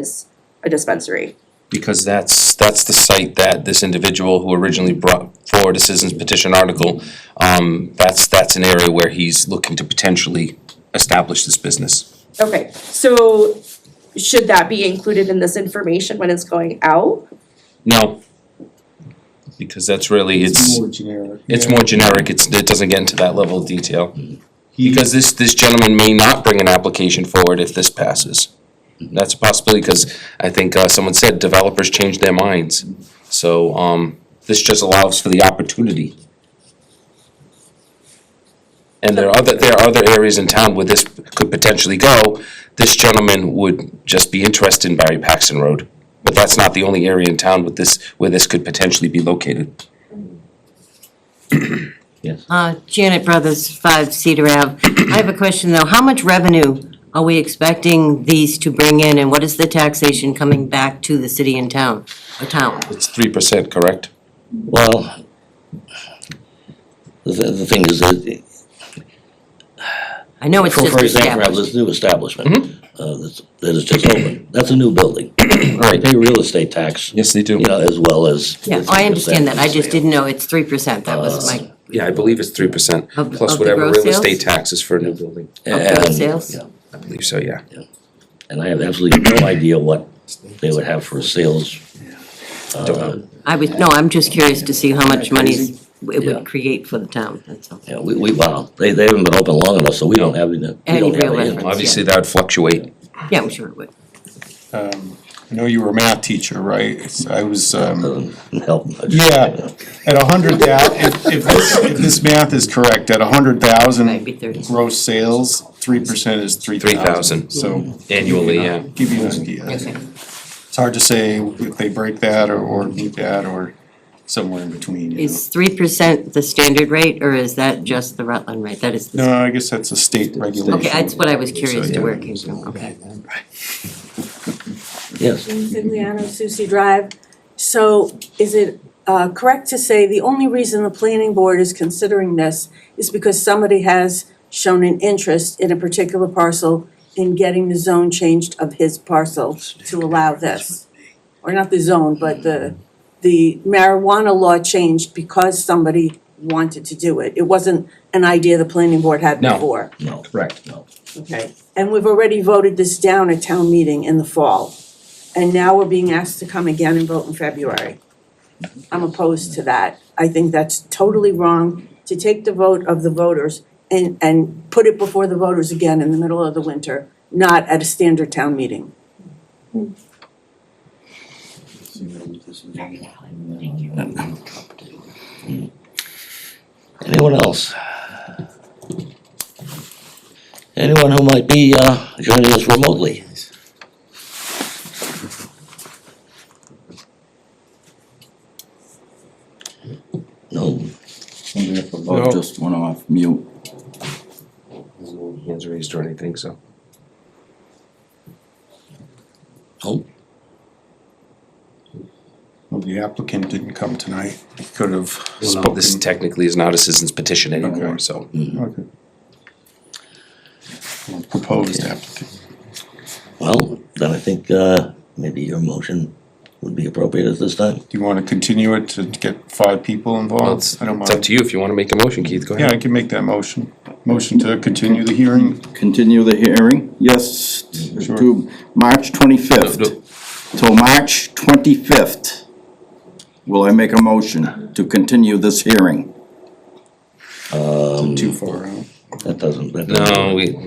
is a dispensary. Because that's, that's the site that this individual who originally brought forward a citizen's petition article, um, that's, that's an area where he's looking to potentially establish this business. Okay, so should that be included in this information when it's going out? No. Because that's really, it's, More generic. it's more generic, it's, it doesn't get into that level of detail. He- Because this, this gentleman may not bring an application forward if this passes. That's a possibility, because I think, uh, someone said developers change their minds. So, um, this just allows for the opportunity. And there are other, there are other areas in town where this could potentially go. This gentleman would just be interested in Barry Paxton Road. But that's not the only area in town with this, where this could potentially be located. Uh, Janet Brothers, 5 Cedar Ave. I have a question, though. How much revenue are we expecting these to bring in, and what is the taxation coming back to the city and town, or town? It's three percent, correct? Well, the, the thing is that, I know it's for, just for example, I have this established. new establishment, Mm-hmm. uh, that's, that is just open, that's a new building. They Right, pay real estate tax, you yes, they do. know, as well as. Yeah, oh, I understand that. I just 15% didn't know it's 3%. That was my, Yeah, I believe it's three percent, Of- plus of the whatever real gross sales? estate taxes for a new building. and- Of those Oh, sales? yeah, I believe so, yeah. And I have absolutely no idea what they would have for sales. Oh, uh, I was, no, I'm just curious to see how much money it Yeah. would create for the town, that's all. Yeah, we, we, wow, they, they haven't been open long enough, so we don't have, any- we Any don't have real any. reference. Obviously, that would fluctuate. Yeah, I'm sure it would. Um, I know you were a math teacher, right? It's- I was, um, Doesn't help much. yeah, at a hundred thou, if, if this, if this math is correct, at a hundred Might be thousand 30. gross sales, three percent is three 3,000. thousand. So, Annually, yeah. give you an idea. Okay. It's hard to say if they break that or, or meet that or somewhere in between, you know. Is 3% the standard rate, or is that just the Rutland rate? That is the No, I guess that's a state regulation. Okay, that's what I was curious So, to yeah. where it came from, okay. Yes. Jean Figliano, Susie Drive. So is it uh, correct to say the only reason the planning board is considering this is because somebody has shown an interest in a particular parcel in getting the zone changed of his parcel to allow this? Or not the zone, but the, the marijuana law changed because somebody wanted to do it. It wasn't an idea the planning board had No. before. No. Correct. No. Okay, and we've already voted this down at town meeting in the fall. And now we're being asked to come again and vote in February. I'm opposed to that. I think that's totally wrong to take the vote of the voters and, and put it before the voters again in the middle of the winter, not at a standard town meeting. Anyone else? Anyone who might be uh, joining us remotely? No, Wonder if the vote just went off mute. There's no Hands raised or anything, so. no, Well, the applicant didn't come tonight. He could have spoken. This technically is not a citizen's petition anymore, Okay. so. Okay. Well, Proposed applicant. well, then I think uh, maybe your motion would be appropriate at this time. Do you want to continue it to get five people Well, involved? it's, I don't it's up mind. to you if you wanna make a motion, Keith, go Yeah, ahead. I can make that motion. Motion to continue the hearing. Continue the hearing, yes, Sure. to March No, twenty-fifth. Till March twenty-fifth, will I make a motion to continue this hearing? Too far out. That doesn't, that doesn't. No, we.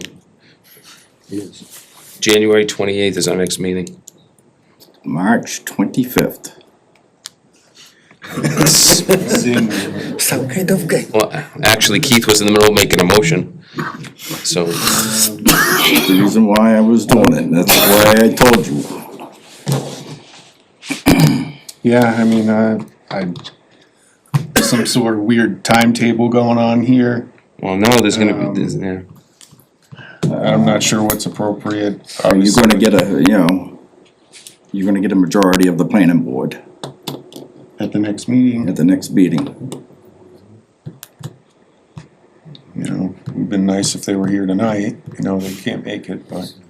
January twenty-eighth is our next meeting. March twenty-fifth. Zing. Some kind of guy. Well, actually Keith was in the middle of making a motion, so. The reason why I was doing it, that's why I told you. Yeah, I mean, uh, I, some sort of weird timetable going on here. Well, no, there's gonna be, there's, yeah. I'm not sure what's appropriate. Are you gonna get a, you know, you're gonna get a majority of the planning board At the next meeting, at the next meeting. you know, it'd been nice if they were here tonight. You know, they can't make it, but